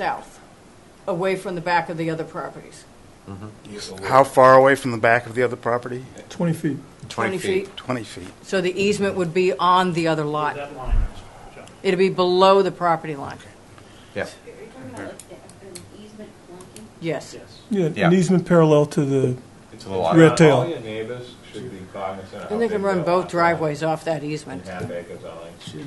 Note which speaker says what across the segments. Speaker 1: south, away from the back of the other properties.
Speaker 2: How far away from the back of the other property?
Speaker 3: 20 feet.
Speaker 1: 20 feet.
Speaker 2: 20 feet.
Speaker 1: So the easement would be on the other lot.
Speaker 4: That line is, John.
Speaker 1: It'd be below the property line.
Speaker 5: Yeah,
Speaker 6: Are you talking about like the- an easement flunking?
Speaker 1: Yes.
Speaker 4: yes.
Speaker 3: Yeah,
Speaker 5: Yeah.
Speaker 3: an easement parallel to the,
Speaker 5: to the lot.
Speaker 3: Red tail.
Speaker 7: Uh, All your neighbors should be cognizant of.
Speaker 1: And they can run both driveways off that easement.
Speaker 7: Half acres only.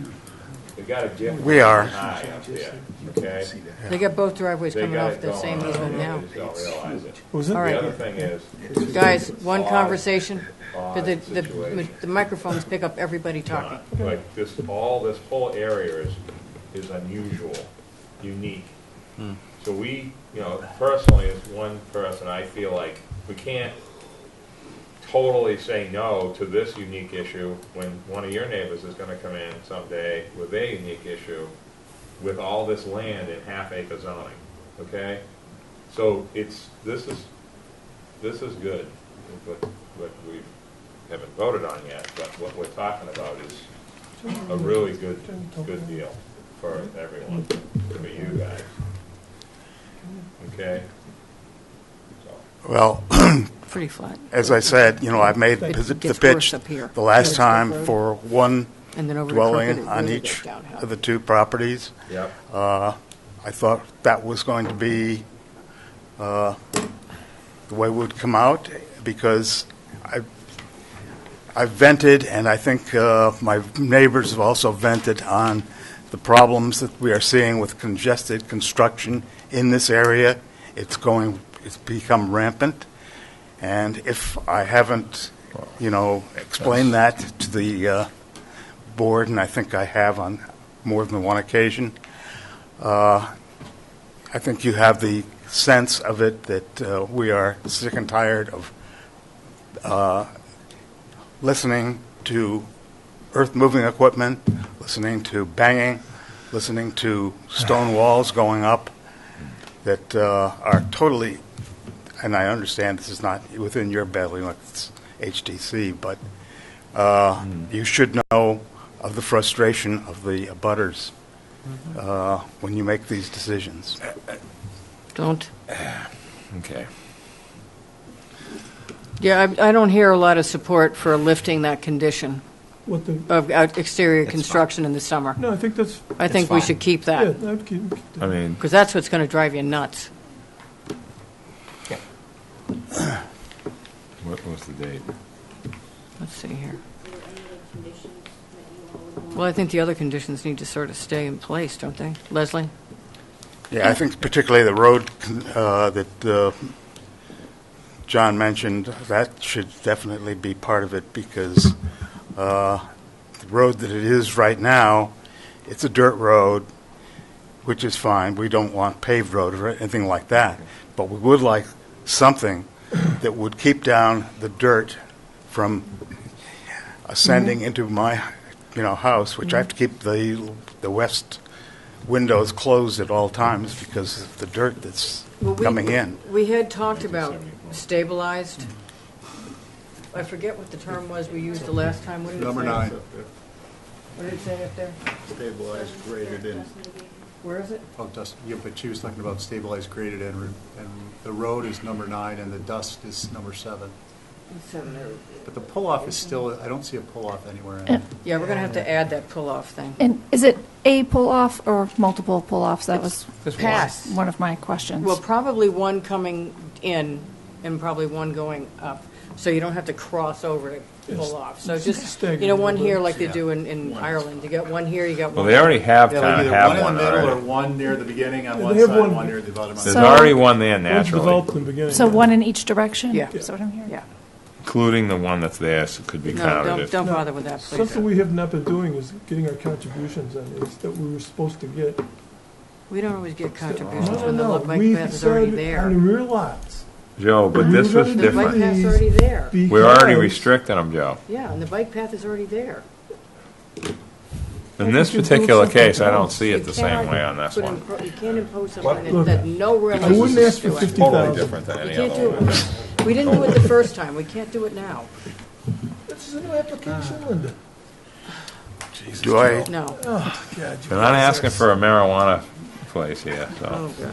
Speaker 7: They got a different.
Speaker 2: We are.
Speaker 7: High up there, okay?
Speaker 1: They got both driveways
Speaker 7: They
Speaker 1: coming
Speaker 7: got
Speaker 1: off
Speaker 7: it
Speaker 1: the
Speaker 7: going
Speaker 1: same
Speaker 7: on,
Speaker 1: easement now.
Speaker 7: they just don't realize it.
Speaker 3: what was it?
Speaker 1: All right.
Speaker 7: The other thing is,
Speaker 1: Guys, one
Speaker 7: Odd.
Speaker 1: conversation, because
Speaker 7: Odd
Speaker 1: the, the
Speaker 7: situation.
Speaker 1: the microphones pick up everybody talking.
Speaker 7: John, like this, all, this whole area is, is unusual, unique. So we, you know, personally, as one person, I feel like we can't totally say no to this unique issue when one of your neighbors is gonna come in someday with a unique issue with all this land in half acre zoning, okay? So it's, this is, this is good, what, what we haven't voted on yet, but what we're talking about is a really good, good deal for everyone, for you guys. Okay? So,
Speaker 2: Well,
Speaker 1: Pretty flat.
Speaker 2: as I said, you know, I made
Speaker 1: It
Speaker 2: the the
Speaker 1: gets
Speaker 2: pitch
Speaker 1: worse up here.
Speaker 2: the last
Speaker 1: Gets
Speaker 2: time
Speaker 1: rougher.
Speaker 2: for one
Speaker 1: And then over to Crooked, it
Speaker 2: dwelling on
Speaker 1: really
Speaker 2: each
Speaker 1: goes downhill.
Speaker 2: of the two properties.
Speaker 7: Yep,
Speaker 2: Uh, I thought that was going to be uh, the way it would come out, because I I vented, and I think uh, my neighbors have also vented on the problems that we are seeing with congested construction in this area. It's going, it's become rampant, and if I haven't, you know, explained that to the uh, board, and I think I have on more than one occasion, I think you have the sense of it that uh, we are sick and tired of uh, listening to earth-moving equipment, listening to banging, listening to stone walls going up that uh, are totally, and I understand this is not within your belly, like it's HTC, but uh, you should know of the frustration of the abutters uh, when you make these decisions.
Speaker 1: Don't.
Speaker 5: Okay.
Speaker 1: Yeah, I, I don't hear a lot of support for lifting that condition
Speaker 3: What the,
Speaker 1: of out- exterior
Speaker 5: fine.
Speaker 1: construction in the summer.
Speaker 3: no, I think that's,
Speaker 1: I
Speaker 5: It's
Speaker 1: think we
Speaker 5: fine.
Speaker 1: should keep
Speaker 3: yeah, I
Speaker 1: that,
Speaker 3: would keep, keep that.
Speaker 5: I mean,
Speaker 1: because that's what's going to drive you nuts.
Speaker 5: what was the date?
Speaker 1: Let's see here.
Speaker 6: Are there any other conditions that you all would want?
Speaker 1: Well, I think the other conditions need to sort of stay in place, don't they? Leslie?
Speaker 2: Yeah, I think particularly the road uh, that uh, John mentioned, that should definitely be part of it because uh, the road that it is right now, it's a dirt road, which is fine. We don't want paved road or anything like that. But we would like something that would keep down the dirt from ascending into my, you know, house, which I have to keep the, the west windows closed at all times because of the dirt that's coming in.
Speaker 1: We had talked about stabilized. I forget what the term was we used the last time. What did it say? Number nine. What did it say up there?
Speaker 8: Stabilized, graded in,
Speaker 1: Where is it?
Speaker 8: oh, dust, yeah, but she was talking about stabilized, graded in, and the road is number nine, and the dust is number seven. But the pull-off is still, I don't see a pull-off anywhere in it.
Speaker 1: Yeah, we're going to have to add that pull-off thing.
Speaker 9: And is it a pull-off or multiple pull-offs? That was
Speaker 1: Pass.
Speaker 9: one of my questions.
Speaker 1: Well, probably one coming in and probably one going up, so you don't have to cross over to pull off. So just, you know, one here like they do in, in Ireland. You got one here, you got
Speaker 5: Well,
Speaker 1: one.
Speaker 5: they already have
Speaker 8: Yeah, like
Speaker 5: kind of
Speaker 8: either
Speaker 5: have
Speaker 8: in
Speaker 5: one
Speaker 8: the middle or
Speaker 5: already.
Speaker 8: one near the beginning on
Speaker 3: They
Speaker 8: one
Speaker 3: have
Speaker 8: side, and
Speaker 3: one-
Speaker 8: one near the bottom. on
Speaker 5: There's
Speaker 8: the other.
Speaker 9: So-
Speaker 5: already one there
Speaker 3: One's
Speaker 5: naturally,
Speaker 3: developed in the beginning.
Speaker 9: So one in each direction?
Speaker 1: Yeah.
Speaker 9: Is that what I'm hearing?
Speaker 1: Yeah.
Speaker 5: including the one that's there, so it could be
Speaker 1: No,
Speaker 5: counted.
Speaker 1: don't,
Speaker 5: if-
Speaker 1: don't bother with that, please.
Speaker 3: Something we have not been doing is getting our contributions on these that we were supposed to get.
Speaker 1: We don't always get
Speaker 3: No,
Speaker 1: contributions
Speaker 3: no,
Speaker 1: when the
Speaker 3: no,
Speaker 1: lo- bike
Speaker 3: we
Speaker 1: path is already
Speaker 3: decided On the
Speaker 1: there.
Speaker 3: rear lots.
Speaker 5: Joe, but this was
Speaker 1: The bike
Speaker 5: different.
Speaker 1: path's already there.
Speaker 5: We're already
Speaker 3: because-
Speaker 5: restricting them, Joe.
Speaker 1: Yeah, and the bike path is already there.
Speaker 5: In this
Speaker 3: I think you do
Speaker 5: particular
Speaker 3: something
Speaker 5: case, I don't
Speaker 3: else.
Speaker 5: see it the same way on this
Speaker 1: Put
Speaker 5: one.
Speaker 1: impro- You can't impose something that,
Speaker 3: Look,
Speaker 1: that no real.
Speaker 3: I wouldn't ask for fifty
Speaker 5: Totally
Speaker 3: thousand.
Speaker 5: different than
Speaker 1: We
Speaker 5: any
Speaker 1: can't
Speaker 5: other
Speaker 1: do
Speaker 5: one.
Speaker 1: it. We didn't do it the first time. We can't do it now.
Speaker 3: This is a new application, Linda.
Speaker 2: Do I,
Speaker 1: No.
Speaker 3: Oh, God. you-
Speaker 5: They're not asking for a marijuana, for
Speaker 7: place here, so.